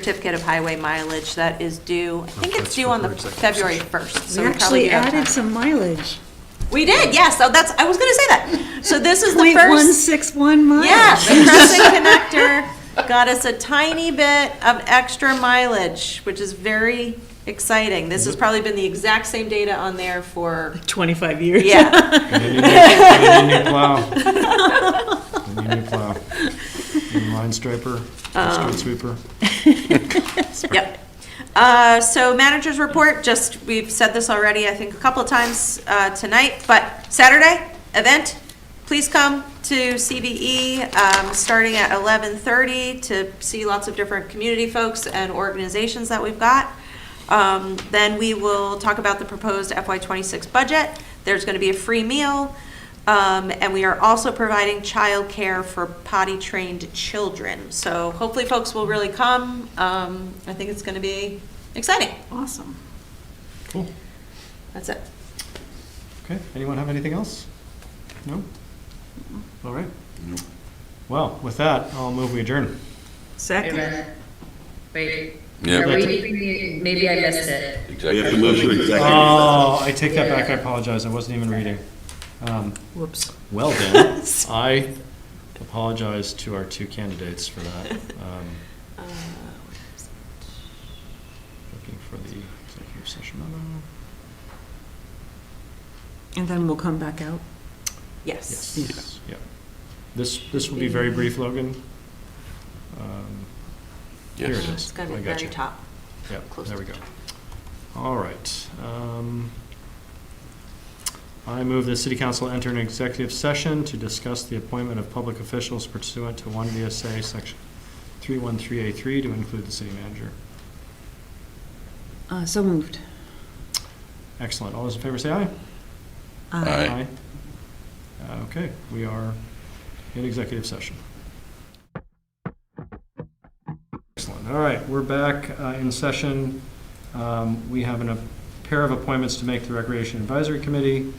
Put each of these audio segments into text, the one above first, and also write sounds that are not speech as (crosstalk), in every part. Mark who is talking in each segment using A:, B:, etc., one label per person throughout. A: certificate of highway mileage that is due, I think it's
B: that's
A: due
B: for
A: on the
B: third section.
A: February 1st. so
C: We
A: we probably
C: actually
A: do have time.
C: added some mileage.
A: We did, yes, so that's, I was going to say that. So this is the
C: Point one
A: first,
C: six one miles.
A: yeah, the Crescent Connector got us a tiny bit of extra mileage, which is very exciting. This has probably been the exact same data on there
C: (laughs)
A: for,
C: (laughs) Twenty-five years.
A: yeah.
B: Need new plow. Need new plow. Need line striper, street sweeper.
A: Yep. Uh, So managers report, just, we've said this already, I think, a couple of times uh, tonight, but Saturday, event, please come to CVE, um, starting at 11:30 to see lots of different community folks and organizations that we've got. Um, Then we will talk about the proposed FY26 budget. There's going to be a free meal, um, and we are also providing childcare for potty-trained children. So hopefully folks will really come. Um, I think it's going to be exciting.
C: (laughs) Awesome.
B: Cool.
A: That's it.
B: Okay, anyone have anything else? No? All right. Well, with that, I'll move we adjourn.
D: Wait a
C: Second.
D: minute. Wait.
E: Yeah.
D: Are we, maybe I missed it.
E: Exactly. have to move to executive.
B: Oh, I take that back, I apologize, I wasn't even reading. Um,
C: Whoops.
B: Well then, I apologize to our two candidates for that. Um,
A: Uh,
B: Looking for the executive session memo.
C: And then we'll come back out.
A: Yes.
B: Yes, yeah. This, this will be very brief, Logan. Um, Here it
E: Yes.
B: is.
A: It's going to
B: I
A: be
B: got
A: very
B: you.
A: top.
B: Yep,
A: Close
B: there we
A: to
B: go.
A: the top.
B: All right. um, I move the city council enter an executive session to discuss the appointment of public officials pursuant to one VSA section 313A3 to include the city manager.
C: Uh, so moved.
B: Excellent. All those in favor say aye.
E: Aye.
B: Uh, Okay, we are in executive session. Excellent. All right, we're back uh, in session. Um, We have an- a pair of appointments to make to the Recreation Advisory Committee.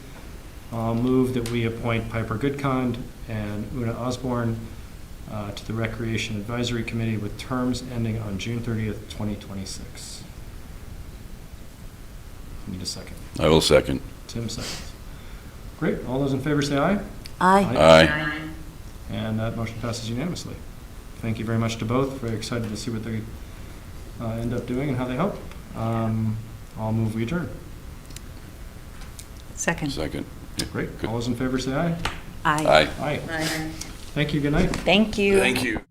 B: I'll move that we appoint Piper Goodkind and Una Osborne uh, to the Recreation Advisory Committee with terms ending on June 30th, 2026. Need a second.
E: I will second.
B: Tim seconds. Great, all those in favor say aye.
C: Aye.
E: Aye.
B: And that motion passes unanimously. Thank you very much to both, very excited to see what they uh, end up doing and how they help. Um, I'll move we adjourn.
C: Second.
E: Second.
B: Great, all those in favor say aye.
C: Aye.
E: Aye.
B: Aye.
D: Bye.
B: Thank you, good night.
C: Thank you.
E: Thank you.